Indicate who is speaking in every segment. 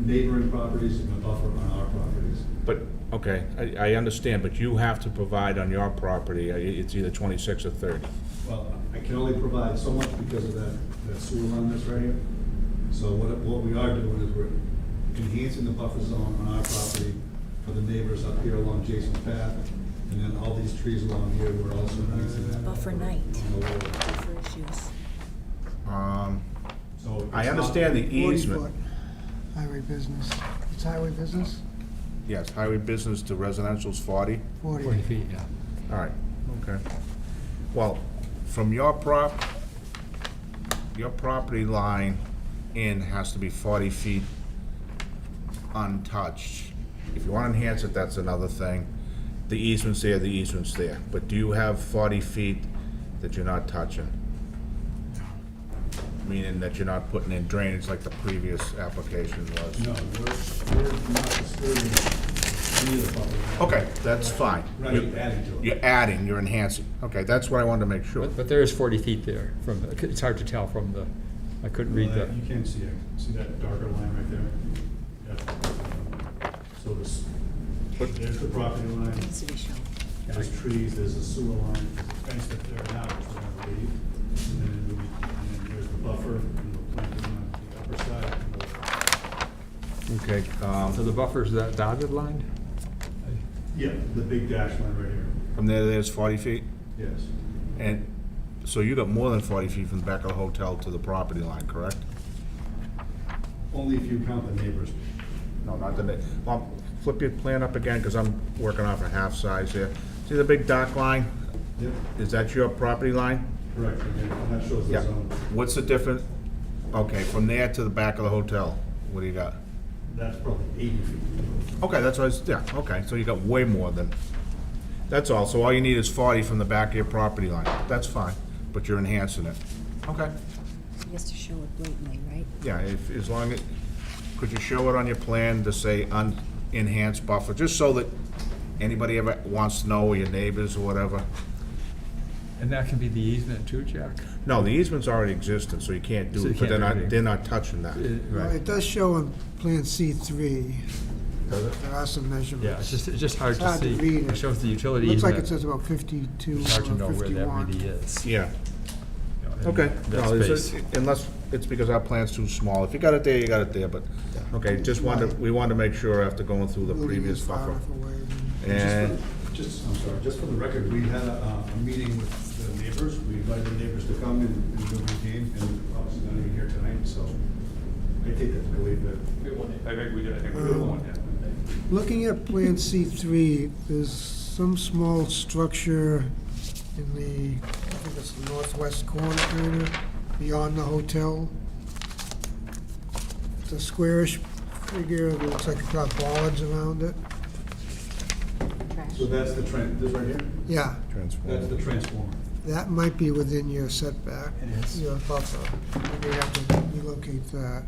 Speaker 1: neighboring properties and a buffer on our properties.
Speaker 2: But, okay, I, I understand, but you have to provide on your property, uh, it's either twenty-six or thirty.
Speaker 1: Well, I can only provide so much because of that, that sewer line that's right here. So what, what we are doing is we're enhancing the buffer zone on our property for the neighbors up here along Jason's path, and then all these trees along here, we're also enhancing that.
Speaker 3: Buffer night.
Speaker 1: on the lower.
Speaker 3: Buffer issues.
Speaker 2: Um,
Speaker 1: So it's
Speaker 2: I
Speaker 1: not-
Speaker 2: understand the easement,
Speaker 4: 40-foot highway business. It's highway business?
Speaker 2: yes, highway business to residential's forty,
Speaker 4: 40.
Speaker 5: 40 feet, yeah.
Speaker 2: all right, okay. Well, from your prop, your property line in has to be forty feet untouched. If you wanna enhance it, that's another thing. The easement's there, the easement's there, but do you have forty feet that you're not touching? Meaning that you're not putting in drainage like the previous application was?
Speaker 1: No, we're, we're not disturbing any of the buffer.
Speaker 2: Okay, that's fine.
Speaker 1: Right,
Speaker 2: You're-
Speaker 1: adding to it.
Speaker 2: You're adding, you're enhancing. Okay, that's what I wanted to make sure.
Speaker 5: But, but there is 40 feet there from, the- it's hard to tell from the, I couldn't read
Speaker 1: Well,
Speaker 5: the,
Speaker 1: that- You can see it, see that darker line right there? Yeah. So this, there's the property line,
Speaker 3: Needs to be shown.
Speaker 1: there's trees, there's a sewer line, there's a fence that they're now just gonna leave. And then, it'll be- and then there's the buffer, and we'll plant it on the upper side. and we'll-
Speaker 2: Okay, um,
Speaker 5: so the buffer's that dotted line?
Speaker 1: Yeah, the big dash line right here,
Speaker 2: from there, there's 40 feet?
Speaker 1: yes.
Speaker 2: And, so you got more than 40 feet from the back of the hotel to the property line, correct?
Speaker 1: Only if you count the neighbors.
Speaker 2: No, not the, big- well, flip your plan up again, because I'm working off a half size here. See the big dock line?
Speaker 1: Yep,
Speaker 2: Is that your property line?
Speaker 1: correct, and then that shows the
Speaker 2: Yeah.
Speaker 1: zone.
Speaker 2: What's the difference? Okay, from there to the back of the hotel, what do you got?
Speaker 1: That's probably eighty feet.
Speaker 2: Okay, that's what I was, yeah, okay, so you got way more than, that's all, so all you need is forty from the back of your property line, that's fine, but you're enhancing it. Okay.
Speaker 3: He has to show it blatantly, right?
Speaker 2: Yeah, if, as long as, could you show it on your plan to say un, enhanced buffer, just so that anybody ever wants to know, or your neighbors or whatever?
Speaker 5: And that can be the easement too, Jack?
Speaker 2: No, the easement's already existing, so you can't do
Speaker 5: So you
Speaker 2: it, but
Speaker 5: can't
Speaker 2: they're
Speaker 5: do
Speaker 2: not,
Speaker 5: anything.
Speaker 2: they're not touching that.
Speaker 5: Uh,
Speaker 4: Well, It does show on Plan C3,
Speaker 2: Does it?
Speaker 4: there are some measurements.
Speaker 5: Yeah, it's just, it's just hard
Speaker 4: It's
Speaker 5: to
Speaker 4: hard to
Speaker 5: see.
Speaker 4: read.
Speaker 5: It shows the utility
Speaker 4: Looks
Speaker 5: easement.
Speaker 4: like it says about 52 or
Speaker 5: It's hard to know where that
Speaker 4: 51.
Speaker 5: really is.
Speaker 2: Yeah,
Speaker 5: you know, in
Speaker 2: okay.
Speaker 5: That
Speaker 2: No, it's-
Speaker 5: space.
Speaker 2: Unless, it's because our plan's too small, if you got it there, you got it there, but, okay, just wanted, to- we wanted to make sure after going through the
Speaker 4: Moving
Speaker 2: previous
Speaker 4: it far
Speaker 2: buffer.
Speaker 4: enough away.
Speaker 2: And,
Speaker 1: Just, I'm sorry, just for the record, we had a, uh, a meeting with the neighbors, we invited the neighbors to come and, and do the game, and obviously none of you here tonight, so I take that, I believe that.
Speaker 6: I think we did, I think we did one, yeah.
Speaker 4: Looking at Plan C3, there's some small structure in the, I think it's the northwest corner area, beyond the hotel. It's a squarish figure, it looks like it's got bollards around it.
Speaker 3: Trash.
Speaker 1: So that's the tran, this right here,
Speaker 4: Yeah,
Speaker 1: that's the
Speaker 2: transform.
Speaker 1: transformer.
Speaker 4: that might be within your setback.
Speaker 1: It is.
Speaker 4: Your buffer. You may have to relocate that.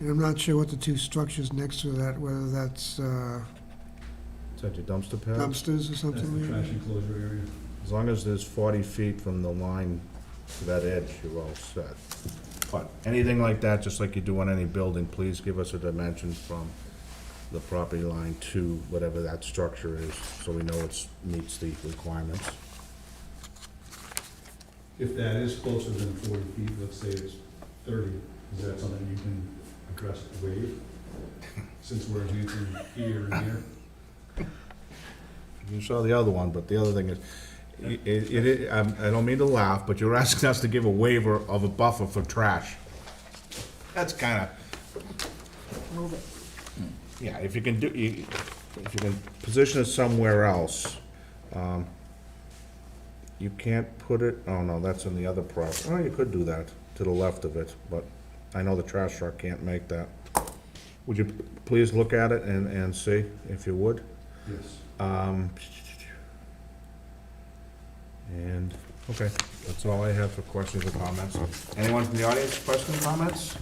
Speaker 4: And I'm not sure what the two structures next to that, whether that's uh,
Speaker 2: Is that your dumpster pad?
Speaker 4: dumpsters or
Speaker 1: That's the
Speaker 4: something like
Speaker 1: trash
Speaker 4: that.
Speaker 1: enclosure area.
Speaker 2: As long as there's 40 feet from the line to that edge, you're all set. But anything like that, just like you do on any building, please give us a dimension from the property line to whatever that structure is, so we know it's, meets the requirements.
Speaker 1: If that is closer than forty feet, let's say it's thirty, is that something you can address with wave? Since we're enhancing here and here,
Speaker 2: You saw the other one, but the other thing is, i- it, it, I'm- I don't mean to laugh, but you're asking us to give a waiver of a buffer for trash. That's kinda,
Speaker 3: Move it.
Speaker 2: yeah, if you can do, you- if you can position it somewhere else, um, you can't put it, oh no, that's in the other prop, oh, you could do that, to the left of it, but I know the trash truck can't make that. Would you p- please look at it and, and see, if you would?
Speaker 1: yes.
Speaker 2: Um, and, okay, that's all I have for questions or comments. Anyone from the audience, questions, comments?